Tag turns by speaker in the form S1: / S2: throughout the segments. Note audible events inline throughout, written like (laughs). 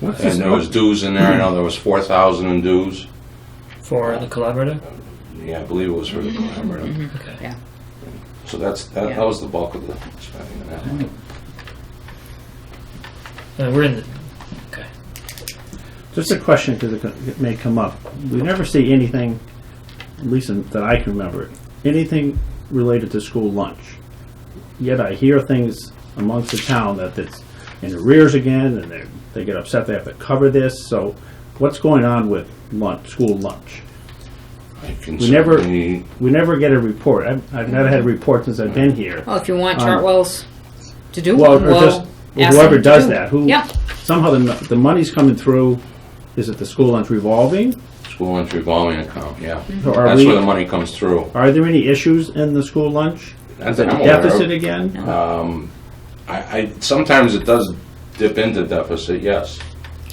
S1: What's
S2: And
S1: this,
S2: there was dues in there, I know there was four thousand in dues.
S1: for the collaborative?
S2: Yeah, I believe it was for the collaborative.
S1: Okay.
S3: Yeah.
S2: So that's, that,
S3: Mm-hmm. Yeah. Mm-hmm.
S2: that was the bulk of the spending on that one.
S1: Uh, we're in the, okay.
S4: Just a question because it, co- it may come up. We never see anything, at least in- that I can remember, anything related to school lunch. Yet I hear things amongst the town that it's in arrears again, and they they get upset they have to cover this. So, what's going on with lunch, school lunch?
S2: I can
S4: We never-
S2: certainly-
S4: We never get a report. I've, I've never had a report since I've been here.
S3: Well, if you want
S4: Um,
S3: Chartwell's to do
S4: Well,
S3: one,
S4: or just
S3: well, ask
S4: whoever
S3: them to
S4: does
S3: do it.
S4: that, who
S3: Yeah,
S4: somehow the the money's coming through. Is it the school lunch revolving?
S2: School lunch revolving account, yeah.
S3: Mm-hmm.
S4: Or are
S2: That's
S4: we-
S2: where the money comes through.
S4: Are there any issues in the school lunch?
S2: That's
S4: The
S2: I'm aware of.
S4: deficit again?
S2: Um, I, I, sometimes it does dip into deficit, yes.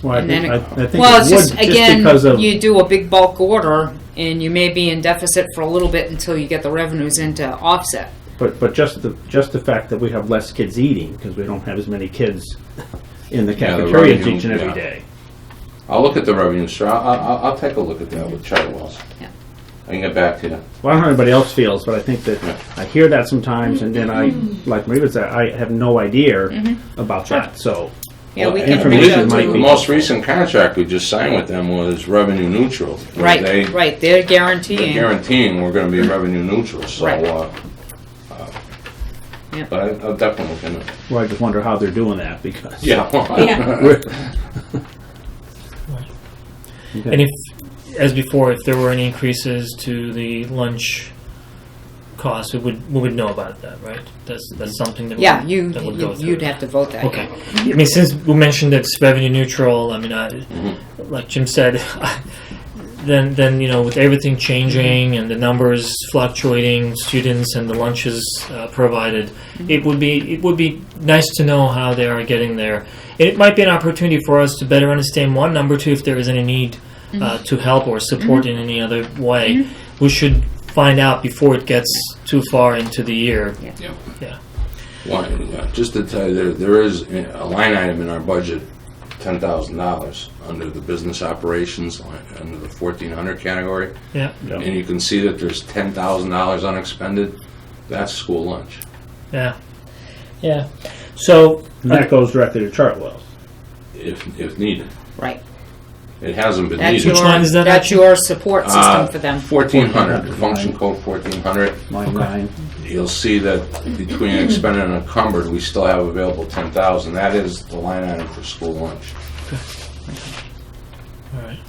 S4: Well, I
S3: And then
S4: think,
S3: it-
S4: I I think
S3: well, it's
S4: it would,
S3: just,
S4: just because
S3: again,
S4: of,
S3: you do a big bulk order and you may be in deficit for a little bit until you get the revenues in to offset.
S4: but, but just the, just the fact that we have less kids eating, because we don't have as many kids in the
S2: Yeah, the
S4: cafeteria
S2: revenue,
S4: each and every
S2: yeah.
S4: day.
S2: I'll look at the revenue, sir, I'll, I'll, I'll take a look at that with Chartwell's.
S3: Yeah.
S2: I can get back to you.
S4: Well, I don't know how anybody else feels, but I think that,
S2: Yeah.
S4: I hear that sometimes, and then I, like Maria said, I have no idea
S3: Mm-hmm.
S4: about that, so.
S3: Yeah, we
S2: Well,
S3: can
S2: I believe
S3: reach
S4: information
S3: out
S4: might
S2: The
S4: be-
S3: to,
S2: most recent contract we just signed with them was revenue neutral. where
S3: right,
S2: They
S3: right, they're
S2: they're
S3: guaranteeing.
S2: guaranteeing we're gonna be revenue neutral, so,
S3: Right.
S2: uh, uh,
S3: Yeah.
S2: but I- I'll definitely look into it.
S4: Well, I just wonder how they're doing that, because.
S3: Yeah.
S2: (laughs) Yeah.
S4: We're-
S1: And if, as before, if there were any increases to the lunch costs, we would, we would know about that, right? That's, that's something that would,
S3: Yeah, you,
S1: that would go
S3: you-
S1: through.
S3: you'd have to vote that.
S1: Okay. I mean, since we mentioned it's revenue neutral, I mean, I, like Jim said, (laughs) then then you know with everything changing and the numbers fluctuating, students and the lunches uh, provided, it would be it would be nice to know how they are getting there. It might be an opportunity for us to better understand one number two if there is any need uh, to help or support in any other way. We should find out before it gets too far into the year.
S3: Yeah.
S1: Yeah.
S2: One, yeah, just to tell you, there, there is a line item in our budget, ten thousand dollars, under the business operations, line under the fourteen hundred category.
S1: Yeah.
S4: Yeah.
S2: And you can see that there's ten thousand dollars unexpended, that's school lunch.
S1: Yeah. Yeah. So
S4: And that goes directly to Chartwell's.
S2: if, if needed.
S3: Right.
S2: It hasn't been
S3: That's
S2: needed.
S3: your,
S1: line is that
S3: that's
S1: actually?
S3: your support
S2: Uh,
S3: system for them.
S2: Fourteen hundred, function code fourteen hundred.
S4: Line nine.
S2: You'll see that between expended and encumbered, we still have available ten thousand. That is the line item for school lunch.
S1: all right.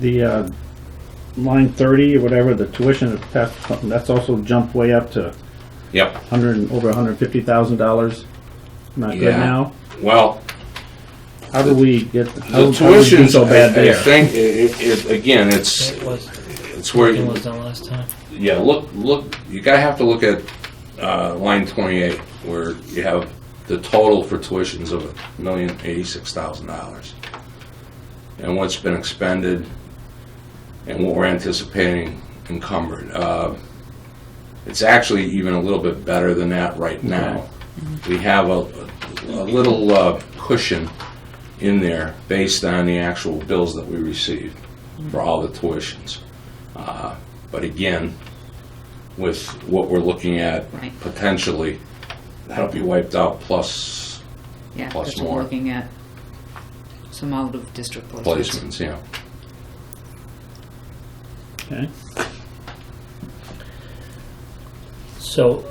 S4: The uh, line 30 or whatever, the tuition, of past- that's also jumped way up to
S2: Yep.
S4: 100, and- over $150,000. Not good
S2: Yeah.
S4: now.
S2: Well,
S4: How do we get, how
S2: the
S4: how do we do
S2: tuition's,
S4: so
S2: I
S4: bad
S2: I
S4: there?
S2: think, it, it, again, it's,
S1: It was.
S2: it's where,
S1: It
S2: you-
S1: was done last time.
S2: yeah, look, look, you gotta have to look at, uh, line twenty-eight, where you have the total for tuitions of a million eighty-six thousand dollars. And what's been expended and what we're anticipating encumbered. Uh, It's actually even a little bit better than that right now. We have a, a little uh, cushion in there based on the actual bills that we received for all the tuitions. Uh, But again, with what we're looking at
S3: Right.
S2: potentially, that'll be wiped out plus
S3: Yeah,
S2: Plus
S3: because we're
S2: more.
S3: looking at some out of district placements.
S2: placements, yeah.
S4: Okay.
S1: So,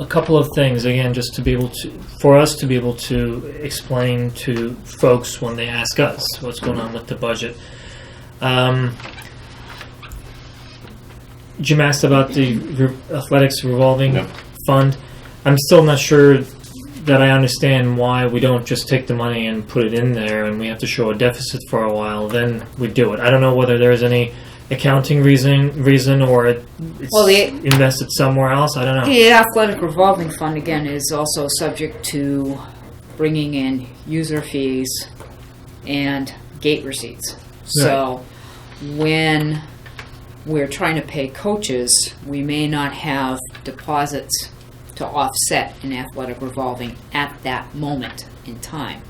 S1: a couple of things again, just to be able to, for us to be able to explain to folks when they ask us what's going on with the budget. Um, Jim asked about the re- athletics revolving
S2: Yeah.
S1: fund. I'm still not sure that I understand why we don't just take the money and put it in there, and we have to show a deficit for a while. Then we do it. I don't know whether there's any accounting reason reason or it, it's
S3: Well, the-
S1: invested somewhere else. I don't know.
S3: The athletic revolving fund, again, is also subject to bringing in user fees and gate receipts. So when we're trying to pay coaches, we may not have deposits to offset an athletic revolving at that moment in time.